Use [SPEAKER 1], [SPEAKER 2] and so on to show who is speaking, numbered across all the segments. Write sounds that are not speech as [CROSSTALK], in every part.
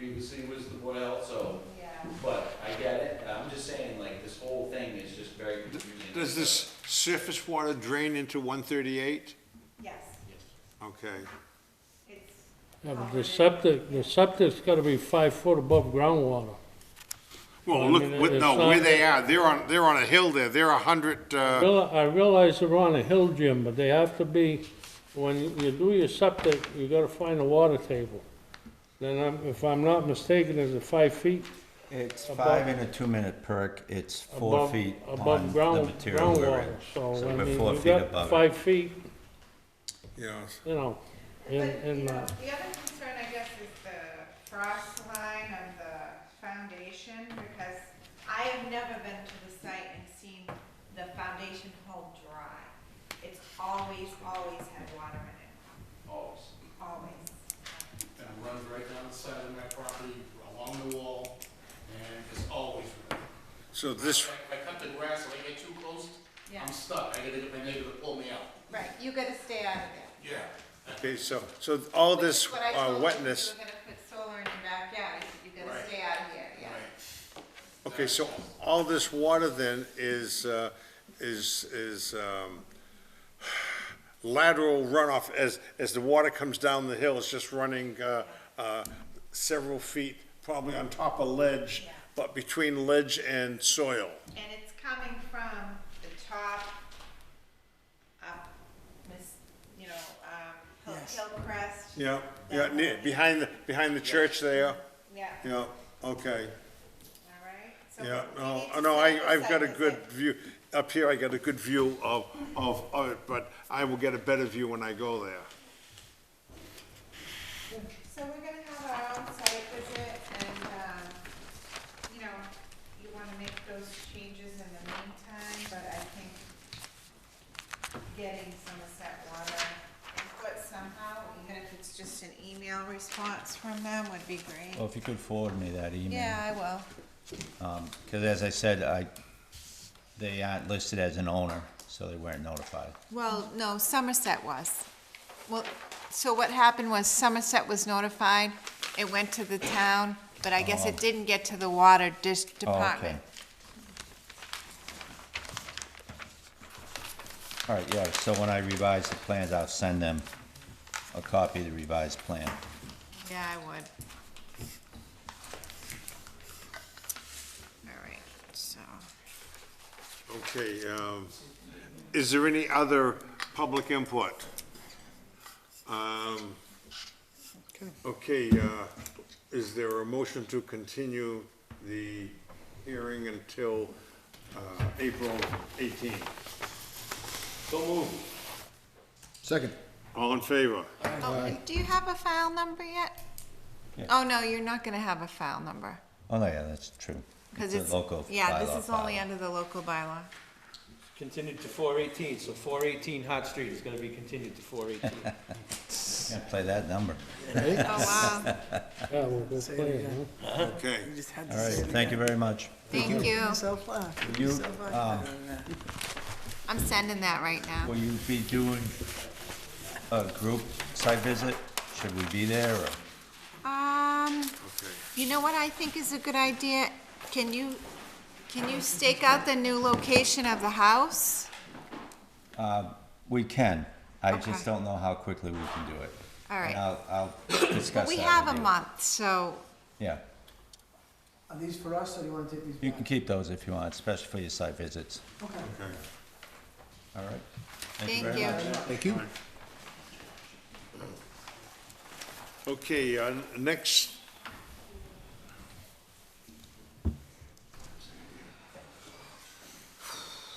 [SPEAKER 1] previously was the Boyle, so,
[SPEAKER 2] Yeah.
[SPEAKER 1] but I get it, I'm just saying, like, this whole thing is just very confusing.
[SPEAKER 3] Does this surface water drain into 138?
[SPEAKER 2] Yes,
[SPEAKER 3] Okay.
[SPEAKER 2] it's.
[SPEAKER 4] Yeah, but
[SPEAKER 2] covered in-
[SPEAKER 4] the septic, the septic's gotta be five foot above groundwater.
[SPEAKER 3] Well,
[SPEAKER 4] I
[SPEAKER 3] look,
[SPEAKER 4] mean,
[SPEAKER 3] with- no,
[SPEAKER 4] it's
[SPEAKER 3] where
[SPEAKER 4] not-
[SPEAKER 3] they are, they're on, they're on a hill there, they're 100, uh,
[SPEAKER 4] Real- I realize they're on a hill, Jim, but they have to be, when you- you do your septic, you gotta find a water table. Then I'm, if I'm not mistaken, is it five feet?
[SPEAKER 5] It's
[SPEAKER 4] Above-
[SPEAKER 5] five and a two-minute perk, it's four
[SPEAKER 4] above-
[SPEAKER 5] feet on
[SPEAKER 4] above
[SPEAKER 5] the
[SPEAKER 4] ground
[SPEAKER 5] material we're in.
[SPEAKER 4] groundwater. So,
[SPEAKER 5] So
[SPEAKER 4] I
[SPEAKER 5] we're
[SPEAKER 4] mean,
[SPEAKER 5] four
[SPEAKER 4] you
[SPEAKER 5] feet above
[SPEAKER 4] got
[SPEAKER 5] it.
[SPEAKER 4] five feet,
[SPEAKER 3] yes,
[SPEAKER 4] you know, in,
[SPEAKER 2] But, you
[SPEAKER 4] in,
[SPEAKER 2] know,
[SPEAKER 4] uh,
[SPEAKER 2] the other concern, I guess, is the frost line of the foundation, because I have never been to the site and seen the foundation hold dry. It's always, always had water in it,
[SPEAKER 6] always.
[SPEAKER 2] always.
[SPEAKER 6] And it runs right down the side of my property, along the wall, and it's always running.
[SPEAKER 3] so this,
[SPEAKER 6] If I cut the grass, if I get too close,
[SPEAKER 2] Yeah,
[SPEAKER 6] I'm stuck, I gotta get my neighbor to pull me out.
[SPEAKER 2] right, you gotta stay out of there.
[SPEAKER 6] Yeah.
[SPEAKER 3] okay, so, so all this
[SPEAKER 2] What I
[SPEAKER 3] uh,
[SPEAKER 2] told you,
[SPEAKER 3] wetness,
[SPEAKER 2] If you were gonna put solar in your backyard, I said, you gotta
[SPEAKER 6] Right.
[SPEAKER 2] stay out of here, yeah.
[SPEAKER 3] okay, so all this water then is, uh, is, is um, lateral runoff as, as the water comes down the hill, it's just running uh, uh, several feet, probably on top of ledge,
[SPEAKER 2] Yeah.
[SPEAKER 3] but between ledge and soil.
[SPEAKER 2] And it's coming from the top up, Miss, you know, um,
[SPEAKER 5] Yes.
[SPEAKER 2] Hill- Hillcrest.
[SPEAKER 3] Yeah, yeah, near, behind, the behind the church there,
[SPEAKER 2] Yeah, all
[SPEAKER 3] yeah, okay,
[SPEAKER 2] right. So
[SPEAKER 3] yeah,
[SPEAKER 2] we
[SPEAKER 3] no,
[SPEAKER 2] need to
[SPEAKER 3] no,
[SPEAKER 2] set
[SPEAKER 3] I,
[SPEAKER 2] this
[SPEAKER 3] I've
[SPEAKER 2] up
[SPEAKER 3] got a
[SPEAKER 2] as
[SPEAKER 3] good view, up here I got a good view of, of, of it, but I will get a better view when I go there.
[SPEAKER 2] So we're gonna have our own site visit and, um, you know, you wanna make those changes in the meantime, but I think getting some of that water input somehow, even if it's just an email response from them would be great.
[SPEAKER 5] Well, if you could forward me that email.
[SPEAKER 2] Yeah, I will.
[SPEAKER 5] Because as I said, I, they aren't listed as an owner, so they weren't notified.
[SPEAKER 2] Well, no, Somerset was. Well, so what happened was Somerset was notified, it went to the town, but I guess it didn't get to the water dis-
[SPEAKER 5] Oh, okay.
[SPEAKER 2] department.
[SPEAKER 5] All right, yeah, so when I revise the plans, I'll send them a copy of the revised plan.
[SPEAKER 2] Yeah, I would. All right, so,
[SPEAKER 3] Okay, um, is there any other public input? Um, okay, uh, is there a motion to continue the hearing until, uh, April eighteenth? So moved.
[SPEAKER 7] Second.
[SPEAKER 3] All in favor?
[SPEAKER 2] oh, do you have a file number yet?
[SPEAKER 5] Yeah.
[SPEAKER 2] Oh, no, you're not gonna have a file number,
[SPEAKER 5] Oh, no, yeah, that's true.
[SPEAKER 2] because
[SPEAKER 5] a
[SPEAKER 2] it's,
[SPEAKER 5] local
[SPEAKER 2] yeah, this
[SPEAKER 5] bylaw
[SPEAKER 2] is only
[SPEAKER 5] bylaw.
[SPEAKER 2] under the local
[SPEAKER 5] [LAUGHS]
[SPEAKER 2] bylaw.
[SPEAKER 8] Continued to four eighteen, so four eighteen Hot Street is gonna be continued to four eighteen.
[SPEAKER 5] Yeah, play that number.
[SPEAKER 2] Oh, wow,
[SPEAKER 4] yeah, we'll go play, huh?
[SPEAKER 3] Okay.
[SPEAKER 5] All right, thank you very much.
[SPEAKER 2] thank you.
[SPEAKER 7] uh,
[SPEAKER 5] You, um,
[SPEAKER 2] I'm sending that right now.
[SPEAKER 5] will you be doing a group site visit? Should we be there, or?
[SPEAKER 2] Um, you know what I think is a good idea? Can you, can you stake out the new location of the house?
[SPEAKER 5] We can. I
[SPEAKER 2] Okay.
[SPEAKER 5] just don't know how quickly we can do it.
[SPEAKER 2] All
[SPEAKER 5] And
[SPEAKER 2] right.
[SPEAKER 5] I'll, I'll discuss that
[SPEAKER 2] We have
[SPEAKER 5] with
[SPEAKER 2] a
[SPEAKER 5] you.
[SPEAKER 2] month, so,
[SPEAKER 5] Yeah,
[SPEAKER 7] Are these for us, or do you wanna take these back?
[SPEAKER 5] you can keep those if you want, especially for your site visits.
[SPEAKER 7] Okay.
[SPEAKER 5] All right?
[SPEAKER 2] thank
[SPEAKER 5] very
[SPEAKER 2] you.
[SPEAKER 5] much.
[SPEAKER 7] Thank you.
[SPEAKER 3] Okay, uh, next.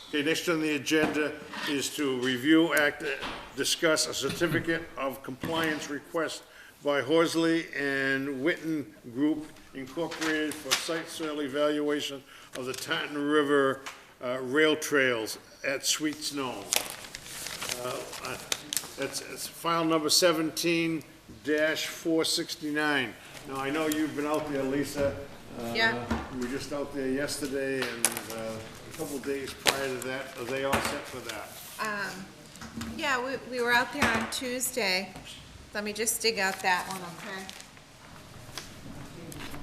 [SPEAKER 3] Okay, next on the agenda is to review, act, uh, discuss a certificate of compliance request by Horsley and Witten Group Incorporated for site soil evaluation of the Taunton River uh, Rail Trails at Sweet Snow. That's, it's file number seventeen dash four sixty-nine. Now, I know you've been out there, Lisa. Uh,
[SPEAKER 2] Yeah.
[SPEAKER 3] We were just out there yesterday and, uh, a couple days prior to that. Are they all set for that?
[SPEAKER 2] Yeah, we, we were out there on Tuesday. Let me just dig out that one, okay?